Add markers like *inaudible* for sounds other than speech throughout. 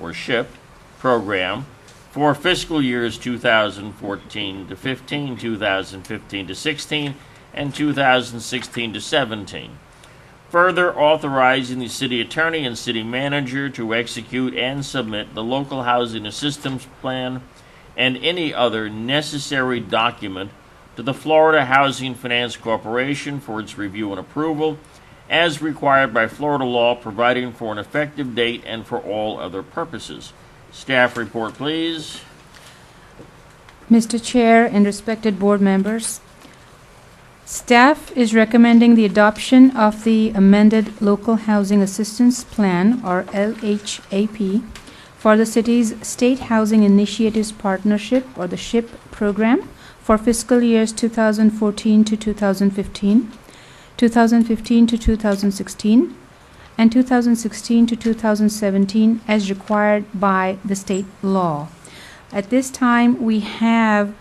or SHIP, program for fiscal years 2014 to 15, 2015 to 16, and 2016 to 17. Further authorizing the city attorney and city manager to execute and submit the local housing assistance plan and any other necessary document to the Florida Housing Finance Corporation for its review and approval as required by Florida law providing for an effective date and for all other purposes. Staff report, please. Mr. Chair and respected board members, staff is recommending the adoption of the amended Local Housing Assistance Plan, or LHAP, for the city's State Housing Initiatives Partnership, or the SHIP program, for fiscal years 2014 to 2015, 2015 to 2016, and 2016 to 2017, as required by the state law. At this time, we have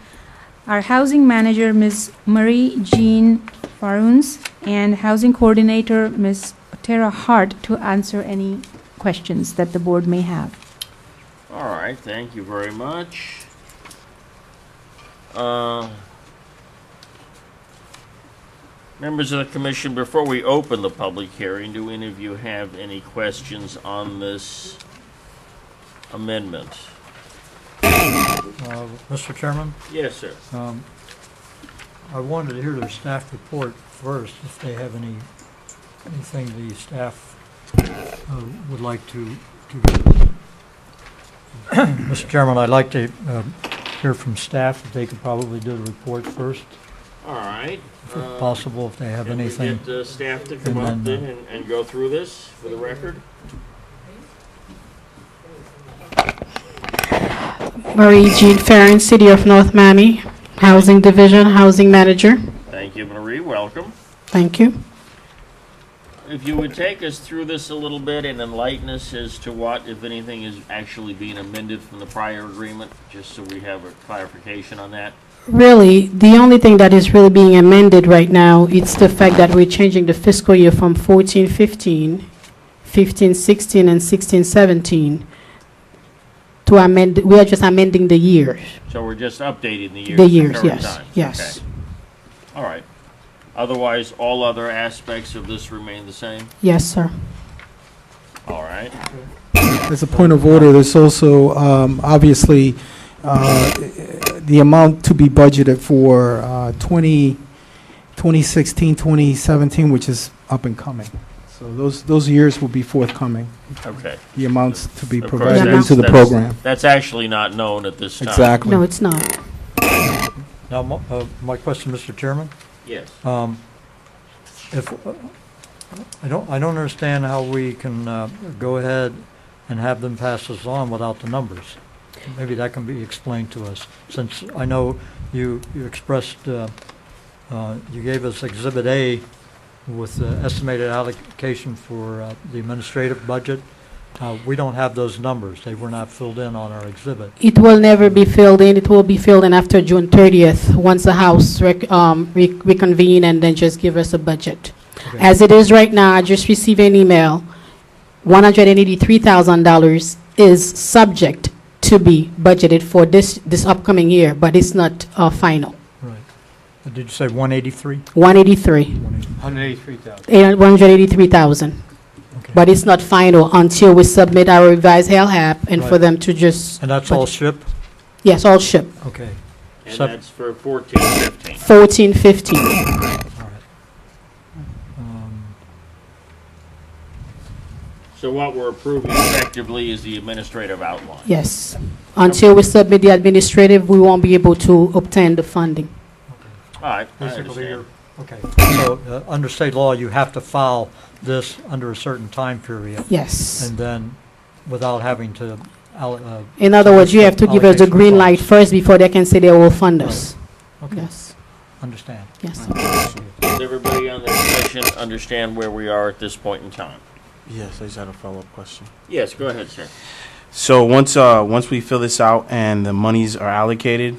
our housing manager, Ms. Marie Jean Faruns, and housing coordinator, Ms. Tara Hart, to answer any questions that the board may have. All right, thank you very much. Uh, Members of the commission, before we open the public hearing, do any of you have any questions on this amendment? Uh, Mr. Chairman, Yes, sir. um, I wanted to hear their staff report first, if they have any, anything the staff uh, would like to, to. *clears throat* Mr. Chairman, I'd like to uh, hear from staff, if they could probably do the report first, All right. if uh, possible, if they have can we anything. Get uh, staff to come up then and, and go through this for the record? Marie Jean Farron, City of North Miami, Housing Division, Housing Manager. Thank you, Marie, welcome. Thank you. If you would take us through this a little bit and enlighten us as to what, if anything, is actually being amended from the prior agreement, just so we have a clarification on that. Really, the only thing that is really being amended right now, it's the fact that we're changing the fiscal year from 14, 15, 15, 16, and 16, 17 to amend, we are just amending the years. So we're just updating the years. The to years, current yes, times. yes. Okay. All right. Otherwise, all other aspects of this remain the same? Yes, sir. All right. As a point of order, there's also, um, obviously, uh, the amount to be budgeted for uh, 20 2016, 2017, which is up and coming. So those, those years will be forthcoming, Okay. the amounts to be Of course, provided that's- into the that's- program. That's actually not known at this time. Exactly. No, it's not. Now, my- uh, my question, Mr. Chairman? Yes. Uh, Um, If, uh, I don't, I don't understand how we can uh, go ahead and have them pass this on without the numbers. Maybe that can be explained to us, since I know you, you expressed, uh, uh, you gave us Exhibit A with the estimated allocation for uh, the administrative budget. Uh, We don't have those numbers. They were not filled in on our exhibit. It will never be filled in. It will be filled in after June 30th, once the House rec- um, re- reconvene and then just give us a budget. Okay. As it is right now, I just received an email, $183,000 is subject to be budgeted for this, this upcoming year, but it's not uh, final. Right. Uh, Did you say 183? 183, 183,000. eh, 183,000, but it's not final until we submit our revised LHAP and for Right. them to just, And that's all ship? yes, all ship, Okay. And Sub- that's for fourteen, fifteen. 14, 15. All right. Um, So what we're approving effectively is the administrative outline. Yes. Until we submit the administrative, we won't be able to obtain the funding. All right, I Basically, understand. you're, okay, so, uh, under state law, you have to file this under a certain time period, Yes. and then, without having to, al- uh, In other words, you have to give us the Allocation green light funds. first before they can say they will fund us. okay, Yes, understand. yes. Does everybody on the commission understand where we are at this point in time? Yes, I just had a follow-up question. Yes, go ahead, sir. So once, uh, once we fill this out and the monies are allocated,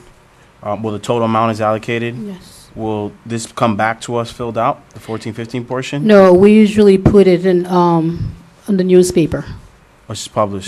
uh, well, the total amount is allocated, Yes. will this come back to us filled out, the fourteen fifteen portion? No, we usually put it in, um, in the newspaper. Or just published?